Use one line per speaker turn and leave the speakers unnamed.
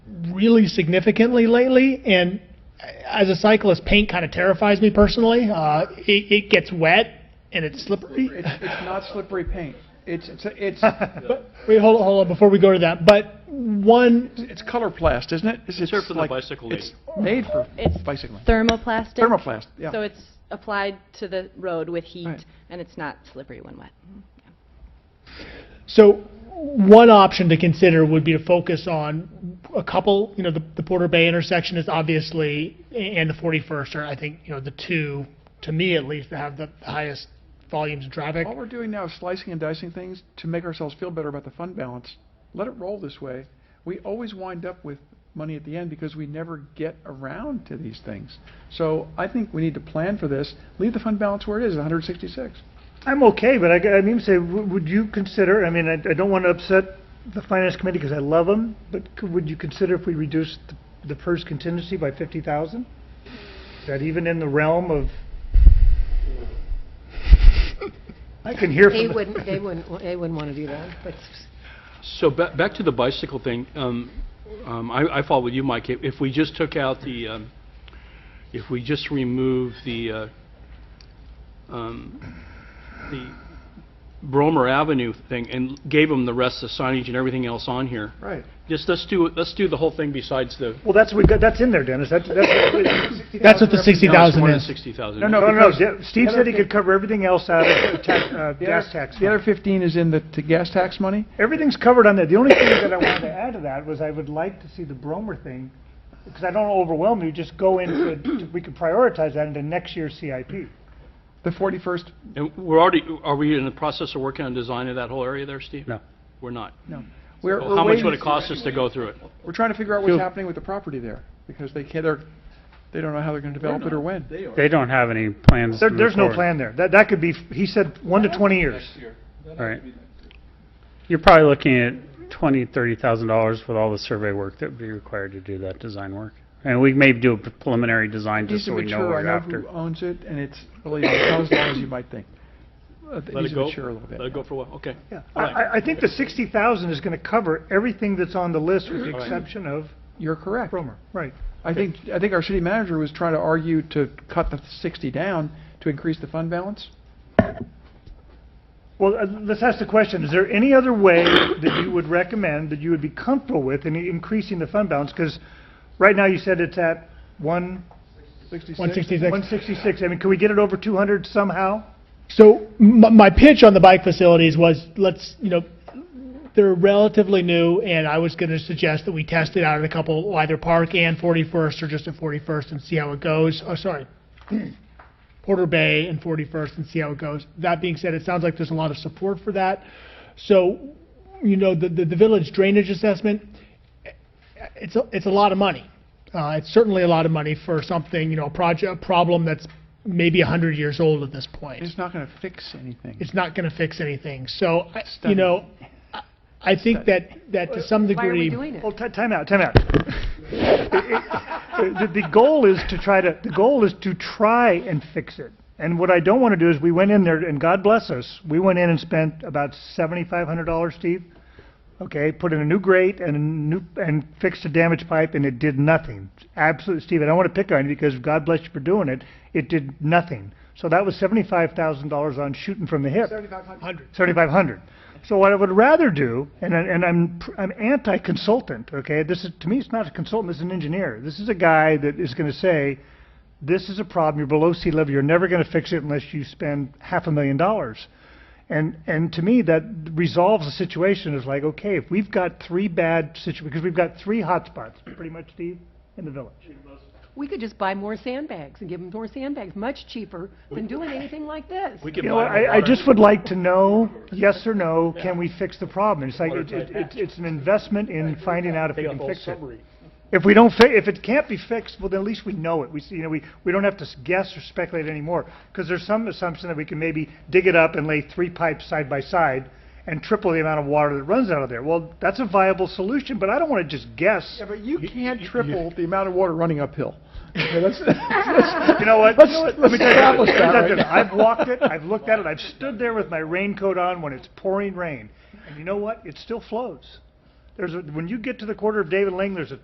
really significantly lately, and as a cyclist, paint kind of terrifies me personally. Uh, it, it gets wet and it's slippery.
It's, it's not slippery paint. It's, it's, it's,
But, wait, hold on, hold on, before we go to that, but one,
it's color plast, isn't it?
It's here for the
like-
bicycle lane.
It's made for
It's
bicycling.
thermoplastic.
Thermoplast, yeah.
So it's applied to the road with
Right.
heat, and it's not slippery when wet.
So one option to consider would be to focus on a couple, you know, the, the Porter Bay intersection is obviously, and the 41st are, I think, you know, the two, to me at least, that have the highest volumes of traffic.
All we're doing now is slicing and dicing things to make ourselves feel better about the fund balance. Let it roll this way. We always wind up with money at the end because we never get around to these things. So I think we need to plan for this. Leave the fund balance where it is, 166.
I'm okay, but I, g- I mean, say, w- would you consider, I mean, I, I don't want to upset the finance committee because I love them, but c would you consider if we reduced the, the first contingency by fifty thousand? Is that even in the realm of? I can hear
They
from, the-
wouldn't, they wouldn't, they wouldn't want to do that, but
So ba- back to the bicycle thing, um, um, I I follow you, Mike. If if we just took out the, um, if we just remove the, uh, um, the Bromer Avenue thing and gave them the rest of the signage and everything else on here,
Right.
just let's do, let's do the whole thing besides the...
well, that's, we got, that's in there, Dennis, that's, that's,
That's what the
No, it's
60,000
more than
is.
60,000.
No,
no, no,
because
De- Steve
the
said he
other
could cover everything else out of the tax, uh,
The
gas
other-
tax.
The
fund.
other 15 is in the, to gas tax money?
Everything's covered on that. The only thing that I wanted to add to that was I would like to see the Bromer thing, because I don't want to overwhelm you, just go into, it- we could prioritize that into next year's CIP.
The 41st,
And we're already, are we in the process of working on design of that whole area there, Steve? No. We're not.
no. We're,
Well,
we're
How much
waiting-
would it cost us to go through it?
We're trying to figure out what's happening with the property there, because they can't, they're, they don't know how they're going to develop it or when.
They don't have any plans to
There,
move
there's no
forward.
plan there. That, that could be, he said, one to twenty years.
Right. You're probably looking at twenty, thirty thousand dollars with all the survey work that would be required to do that design work. And we may do a preliminary design
It needs
just
to
so we know
mature.
what
I
we're
know who
after.
owns it, and it's really not as long as you might think. Uh, It
Let
needs
it
to
go?
mature a little bit.
Let it go for a while, okay.
I, I, I think the sixty thousand is gonna cover everything that's on the list with the exception of
You're correct.
Bromer, right.
I think, I think our city manager was trying to argue to cut the 60 down to increase the fund balance.
Well, uh, let's ask the question, is there any other way that you would recommend, that you would be comfortable with in increasing the fund balance? Because right now you said it's at one
166.
166, I mean, can we get it over 200 somehow?
So my, my pitch on the bike facilities was, let's, you know, they're relatively new, and I was gonna suggest that we test it out at a couple, well, either Park and 41st, or just at 41st and see how it goes, oh, sorry, Porter Bay and 41st and see how it goes. That being said, it sounds like there's a lot of support for that. So, you know, the, the the village drainage assessment, it's, a- it's a lot of money. Uh, it's certainly a lot of money for something, you know, a project, a problem that's maybe 100 years old at this point
It's not going to fix anything.
it's not going to fix anything. So, I- you
Stunning.
know, I- I think that, that to some
why are we
degree,
doing it?
Well, ti- time out, time out. It- it- The, the goal is to try to, the goal is to try and fix it. And what I don't want to do is, we went in there, and God bless us, we went in and spent about $7,500, Steve. Okay, put in a new grate and a new, and fixed a damaged pipe, and it did nothing. Absolutely, Steve, I don't want to pick on you because God bless you for doing it, it did nothing. So that was $75,000 on shooting from the hip. 7,500. So what I would rather do, and, I- and I'm, pr- I'm anti-consultant, okay? This is, to me, it's not a consultant, this is an engineer. This is a guy that is gonna say, this is a problem, you're below sea level, you're never gonna fix it unless you spend half a million dollars. And, and to me, that resolves the situation, Is like, okay, if we've got three bad situ, because we've got three hotspots, pretty much, Steve, in the village.
we could just buy more sandbags and give them more sandbags, much cheaper than doing anything like this.
We can
You
buy
know,
more
I, I
water.
just would like to know, yes or no, can we fix the problem? It's like, it- it- it's, it's an investment in finding out if we can fix it. If we don't fi, if it can't be fixed, well, then at least we know it. We, see- you know, we, we don't have to s- guess or speculate anymore. Because there's some assumption that we can maybe dig it up and lay three pipes side by side and triple the amount of water that runs out of there. Well, that's a viable solution, but I don't want to just guess.
Yeah, but you can't triple the amount of water running uphill. Okay, that's-
You know what?
Let's-
You know what?
let's
Let me tell you-
establish
let me
that
tell
right
you,
now.
I've walked it, I've looked at it, I've stood there with my raincoat on when it's pouring rain. And you know what? It still flows. There's a, when you get to the quarter of David Ling, there's a